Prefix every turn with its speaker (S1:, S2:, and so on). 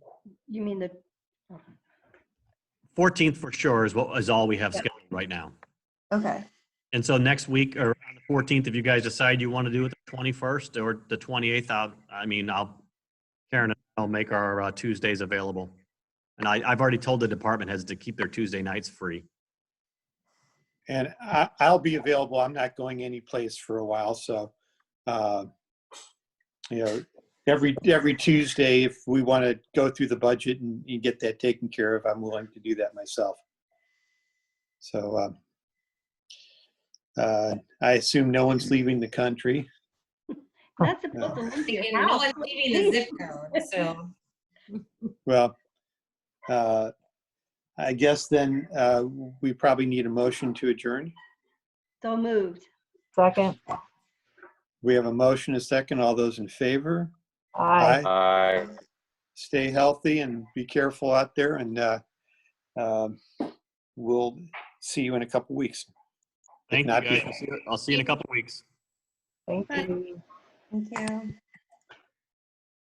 S1: You mean the,
S2: 14th for sure is what, is all we have
S1: Yep.
S2: scheduled right now.
S1: okay,
S2: And so next week or on the 14th, if you guys decide you want to do it the 21st or the 28th, I'll, I mean, I'll, Karen, and I'll make our uh, Tuesdays available. And I, I've already told the department heads to keep their Tuesday nights free.
S3: And I, I'll be available. I'm not going anyplace for a while, so, uh, you know, every, every Tuesday, if we want to go through the budget and you get that taken care of, I'm willing to do that myself. So, um, uh, I assume no one's leaving the country.
S1: that's about the leave
S4: Again,
S1: your
S4: No
S1: house.
S4: one's leaving the zip code, so.
S3: Well, uh, I guess then, uh, we probably need a motion to adjourn.
S1: So moved.
S5: Second,
S3: We have a motion, a second. All those in favor?
S5: aye.
S6: Aye.
S3: stay healthy and be careful out there. And uh, um, we'll see you in a couple weeks.
S2: Thank you
S3: Not
S2: guys.
S3: before.
S2: I'll see you in a couple weeks.
S5: Thank you.
S1: Thank you.